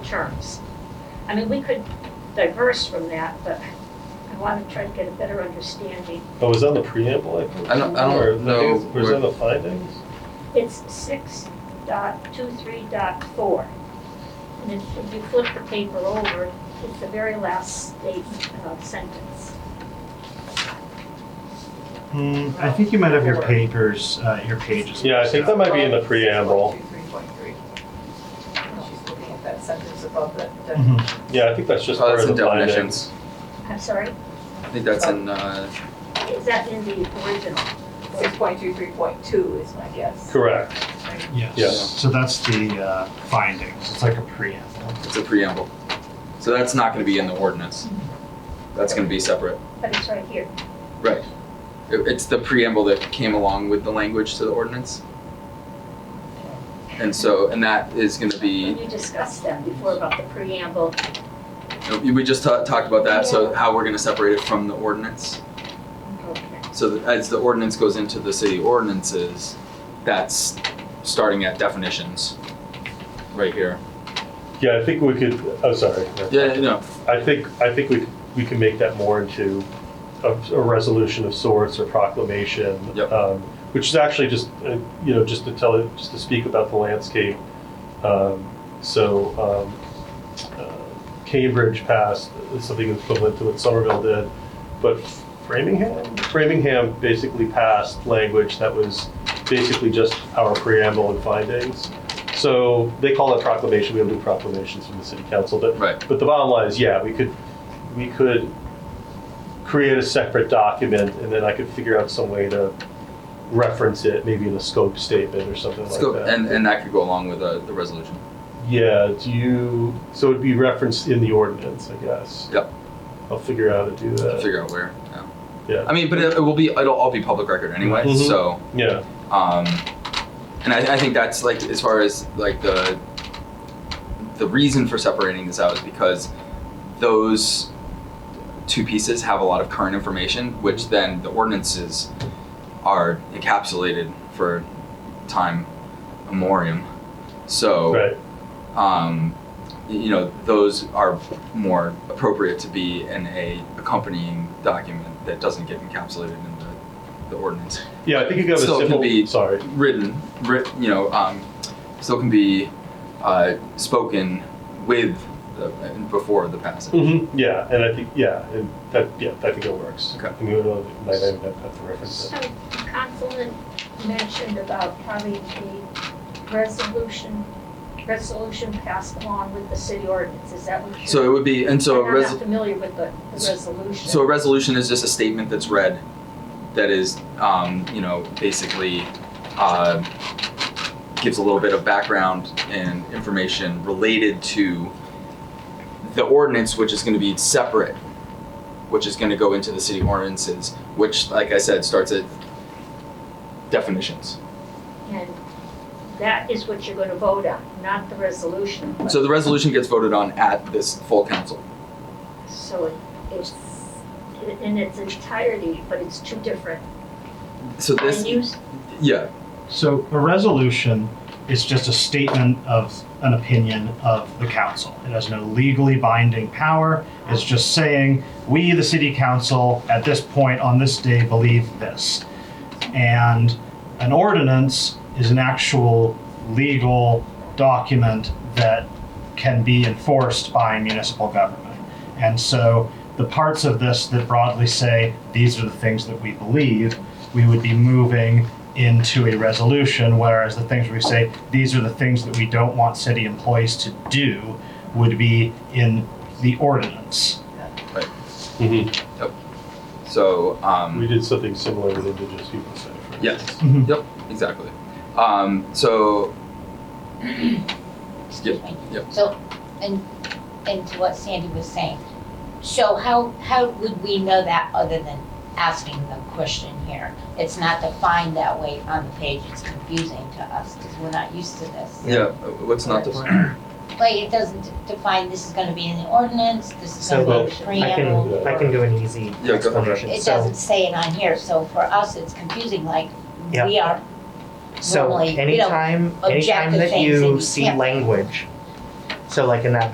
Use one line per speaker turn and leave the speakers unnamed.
terms. I mean, we could diverse from that, but I want to try to get a better understanding.
Oh, was that the preamble, I think?
I don't, I
Or
don't
the-
know.
Was
where-
that the findings?
It's six dot two three dot four. And if if you flip the paper over, it's the very last statement, uh, sentence.
Hmm, I think you might have your papers, uh, your pages.
Yeah, I think that might be in the
Above
preamble.
6.23.3. She's looking at that sentence above that. that-
Mhm.
Yeah, I think that's just
Oh,
part
that's
of
in
the findings.
definitions.
I'm sorry,
I think that's in, uh,
is that in the original?
6.23.2 is my guess.
Correct.
Yes.
Yeah.
So that's the uh, findings. It's like a preamble.
it's a preamble. So that's not gonna be in the ordinance. That's gonna be separate.
But it's right here.
Right. It, it's the preamble that came along with the language to the ordinance. And so, and that is gonna
When
be,
you discussed that before about the preamble,
we just ta- talked about that, so how we're gonna separate it from the ordinance.
okay.
So that as the ordinance goes into the city ordinances, that's starting at definitions, right here.
Yeah, I think we could, oh, sorry.
Yeah, no,
I think, I think we, we can make that more into a, a resolution of sorts or proclamation.
Yep.
um, Which is actually just, uh, you know, just to tell, just to speak about the landscape. Um, So um, uh, Cambridge passed something equivalent to what Somerville did, but Framingham, Framingham basically passed language that was basically just our preamble and findings. So they call it proclamation, we don't do proclamations from the city council, but
right,
but the bottom line is, yeah, we could, we could create a separate document and then I could figure out some way to reference it, maybe in a scope statement or something
let's
like
go,
that.
and, and that could go along with uh, the, the resolution.
Yeah, do you, so it'd be referenced in the ordinance, I guess.
Yep.
I'll figure out how to do that.
Figure out where, yeah.
Yeah.
I mean, but it, it will be, it'll all be public record anyway,
Mhm.
so,
Yeah,
um, and I, I think that's like, as far as like the, the reason for separating this out is because those two pieces have a lot of current information, which then the ordinances are encapsulated for time memoriam. So,
right,
um, y- you know, those are more appropriate to be in a accompanying document that doesn't get encapsulated in the, the ordinance.
yeah, I think you could have
So
a
it could
simple,
be-
sorry,
Written, writ, you know, um, still can be uh, spoken with the, before the passage.
hmm yeah, and I think, yeah, and that, yeah, I think it works.
Mm-hmm. Okay.
I mean, we don't, might not even have to reference
So
it.
Councilman mentioned about having the resolution, resolution passed along with the city ordinance, is that what you're?
So it would be, and so a
I'm
res-
not familiar with the, the resolution.
So a resolution is just a statement that's read, that is, um, you know, basically, uh, gives a little bit of background and information related to the ordinance, which is gonna be separate, which is gonna go into the city ordinances, which, like I said, starts at definitions.
And that is what you're gonna vote on, not the resolution. but-
So the resolution gets voted on at this full council.
So it- it's, in its entirety, but it's two different
So this,
venues,
yeah,
So a resolution is just a statement of an opinion of the council. It has no legally binding power. It's just saying, we, the city council, at this point on this day, believe this. And an ordinance is an actual legal document that can be enforced by municipal government. And so the parts of this that broadly say, these are the things that we believe, we would be moving into a resolution, whereas the things where we say, these are the things that we don't want city employees to do, would be in the ordinance.
Mm-hmm.
Mhm.
so, um.
We did something similar with indigenous people center. for
Yes.
instance.
Mm-hmm.
Yep, exactly. Um, so,
Excuse me.
Yep.
So, and, and to what Sandy was saying, so how, how would we know that other than asking the question here? It's not defined that way on the page, it's confusing to us because we're not used to this.
yeah, what's not defined?
Like, it doesn't define this is gonna be in the ordinance, this is
So,
gonna be in the
I
preamble.
can, I can do an easy
Yeah, go-
explanation,
It
so,
doesn't say it on here, so for us, it's confusing, like,
Yeah.
we are
so
normally, we don't
anytime,
object
anytime
to
that
things and
you
you
see
can't.
language, so like in that